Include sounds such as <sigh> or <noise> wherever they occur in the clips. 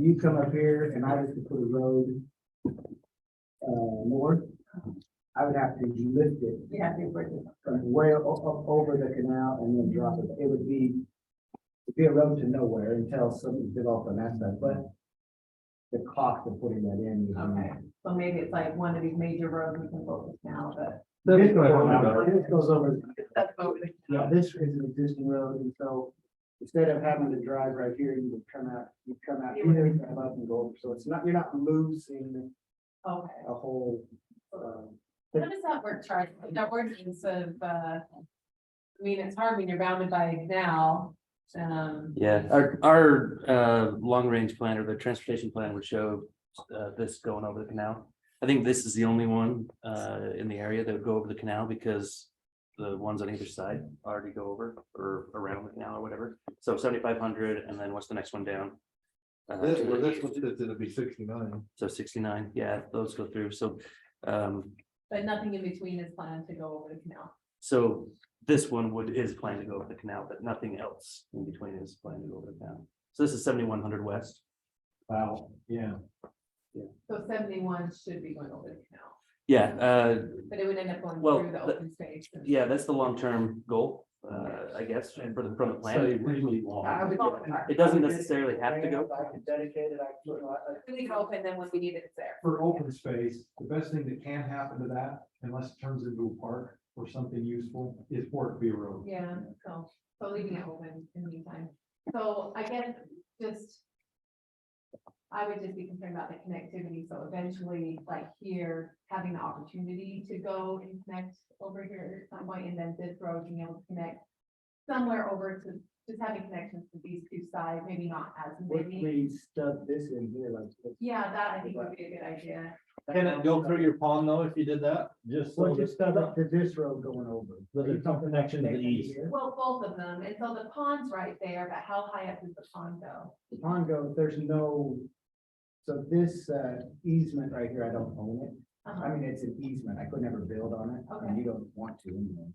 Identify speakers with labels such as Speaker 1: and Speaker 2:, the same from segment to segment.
Speaker 1: you come up here and I was to put a road uh, north, I would have to lift it
Speaker 2: You have to bring it.
Speaker 1: from way o- o- over the canal and then drop it. It would be, it'd be a road to nowhere until something's developed on that side, but the cost of putting that in. is-
Speaker 3: Mm-hmm.
Speaker 2: Okay, so maybe it's like one of these major roads we can focus now, but.
Speaker 1: This goes over- this goes over,
Speaker 2: That's over the.
Speaker 1: yeah, this is an existing road, and so instead of having to drive right here, you would come out, you come out here, drive up and go over. So it's not, you're not losing
Speaker 2: Okay.
Speaker 1: a whole, um,
Speaker 2: How does that work, Charlie? That ordinance of, uh, I mean, it's hard when you're bounded by now, um.
Speaker 3: Yeah, our, our, uh, long range plan or the transportation plan would show, uh, this going over the canal. I think this is the only one, uh, in the area that would go over the canal because the ones on either side already go over or around the canal or whatever. So seventy-five hundred and then what's the next one down? Uh,
Speaker 4: This, well, this one says it'll be sixty-nine.
Speaker 3: So sixty-nine, yeah, those go through. So, um,
Speaker 2: But nothing in between is planned to go over the canal.
Speaker 3: so this one would, is planned to go over the canal, but nothing else in between is planned to go over the canal. So this is seventy-one hundred west.
Speaker 4: Wow, yeah.
Speaker 2: So seventy-one should be going over the canal,
Speaker 3: Yeah, uh,
Speaker 2: but it would end up going
Speaker 3: Well,
Speaker 2: through the
Speaker 3: the-
Speaker 2: open space. and-
Speaker 3: Yeah, that's the long-term goal, uh, I guess, and for the, from the
Speaker 4: So
Speaker 3: plan.
Speaker 4: you really long.
Speaker 1: I would-
Speaker 3: It doesn't necessarily have to go.
Speaker 1: If I could dedicate it, I could, I- I-
Speaker 2: We leave it open, then when we need it, it's there.
Speaker 5: for open space, the best thing that can happen to that, unless it turns into a park or something useful, is for it to be a road.
Speaker 2: Yeah, so, so leaving it open in the meantime. So I guess just. I would just be concerned about the connectivity, so eventually, like here, having the opportunity to go and connect over here at some point, and then this road being able to connect. Somewhere over to, just having connections to these two sides, maybe not as
Speaker 1: If
Speaker 2: many.
Speaker 1: we stuck this in here like. this.
Speaker 2: Yeah, that I think would be a good idea.
Speaker 4: Can it go through your pond though, if you did that? Just. so
Speaker 1: Well,
Speaker 4: that-
Speaker 1: just stuff up to this road going over.
Speaker 4: But there's no connection to the east.
Speaker 1: Here.
Speaker 2: Well, both of them, and so the pond's right there, but how high up does the pond go?
Speaker 1: The pond goes, there's no, so this uh, easement right here, I don't own it. I
Speaker 2: Uh-huh.
Speaker 1: mean, it's an easement. I could never build on it. and
Speaker 2: Okay.
Speaker 1: You don't want to anyway.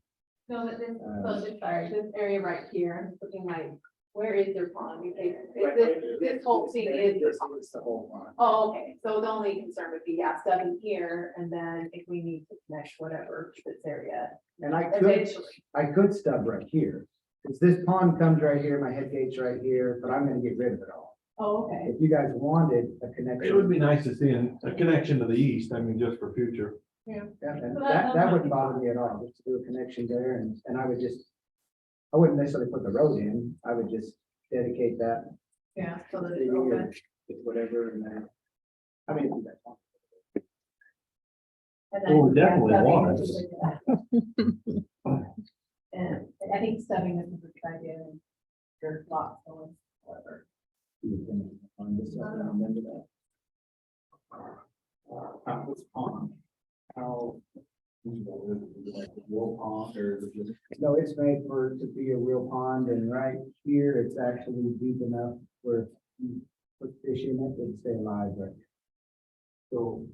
Speaker 2: No, but this,
Speaker 1: Uh,
Speaker 2: so just sorry, this area right here, I'm just looking like, where is their pond? Because it- this, this whole thing is their
Speaker 1: This
Speaker 2: pond.
Speaker 1: is the whole pond.
Speaker 2: Oh, okay, so the only concern would be, yeah, seven here, and then if we need to mesh whatever to this area
Speaker 1: And I could,
Speaker 2: eventually.
Speaker 1: I could stub right here. Because this pond comes right here, my head gate's right here, but I'm gonna get rid of it all.
Speaker 2: Oh, okay,
Speaker 1: If you guys wanted a connection.
Speaker 5: It would be nice to see an- a connection to the east, I mean, just for future.
Speaker 1: Yeah, and
Speaker 2: So that-
Speaker 1: that,
Speaker 2: that's
Speaker 1: that wouldn't
Speaker 2: not-
Speaker 1: bother me at all, just to do a connection there, and, and I would just, I wouldn't necessarily put the road in, I would just dedicate that.
Speaker 2: yeah, so that
Speaker 1: to
Speaker 2: it's
Speaker 1: you,
Speaker 2: open,
Speaker 1: With whatever, and then, I mean. if that's-
Speaker 2: and then.
Speaker 5: Oh, we
Speaker 2: yeah,
Speaker 5: definitely
Speaker 2: stubbing
Speaker 5: want
Speaker 2: is a good
Speaker 1: <laughs>
Speaker 2: idea. And I think stubbing is a good idea, and your lot, or whatever.
Speaker 1: you can find this out and remember that.
Speaker 4: Uh, it's pond. How? Like the wall pond or is it just-
Speaker 1: No, it's made for, it to be a real pond, and right here, it's actually deep enough where if you put fish in it, it'd stay alive, right?
Speaker 4: So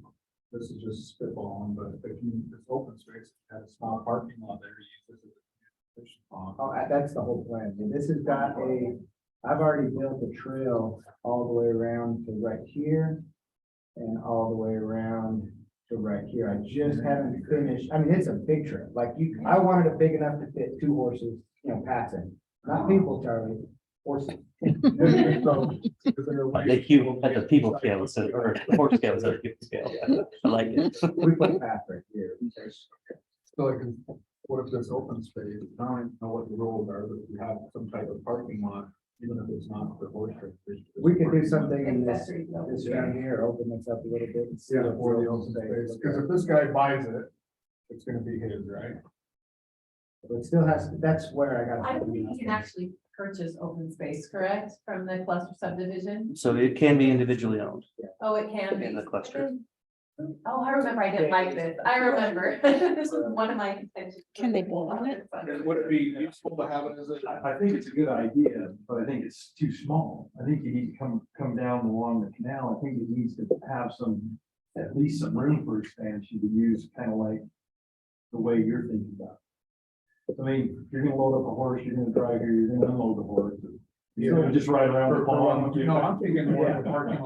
Speaker 4: this is just spitballing, but if you, it's open space, have a small parking lot there, you use this as a fish pond.
Speaker 1: Oh, uh, that's the whole plan, and this has got a, I've already built a trail all the way around to right here. And all the way around to right here, I just haven't finished, I mean, it's a big trail, like you, I wanted it big enough to fit two horses, you know, passing. Not people, Charlie, horses. So,
Speaker 3: The cube, but the people scale instead of, or the horse scale instead of people scale. I like it.
Speaker 1: We put a path right here.
Speaker 4: So like, what if there's open space, I don't even know what the rules are, but if you have some type of parking lot, even if it's not for horse trade.
Speaker 1: We could do something in this,
Speaker 2: Accessory building.
Speaker 1: this down here, open this up a little bit and see.
Speaker 4: Yeah,
Speaker 1: what's
Speaker 4: for the
Speaker 1: open
Speaker 4: open space,
Speaker 1: space.
Speaker 4: because if this guy buys it, it's gonna be his, right?
Speaker 1: But it still has, that's where I got.
Speaker 2: I don't think you can actually purchase open space, correct, from the cluster subdivision?
Speaker 3: So it can be individually owned.
Speaker 2: Oh, it can be.
Speaker 3: In the cluster.
Speaker 2: Oh, I remember, I didn't like this, I remember, <laughs> this was one of my intentions.
Speaker 6: Can they build on it?
Speaker 4: Would it be useful to have it as a?
Speaker 5: I, I think it's a good idea, but I think it's too small. I think you need to come, come down along the canal. I think it needs to have some, at least some room for expansion to use, kind of like the way you're thinking about. it. I mean, you're gonna load up a horse, you're gonna drive here, you're gonna unload the horse. You're gonna just ride around the pond.
Speaker 4: You know, I'm thinking more of a parking lot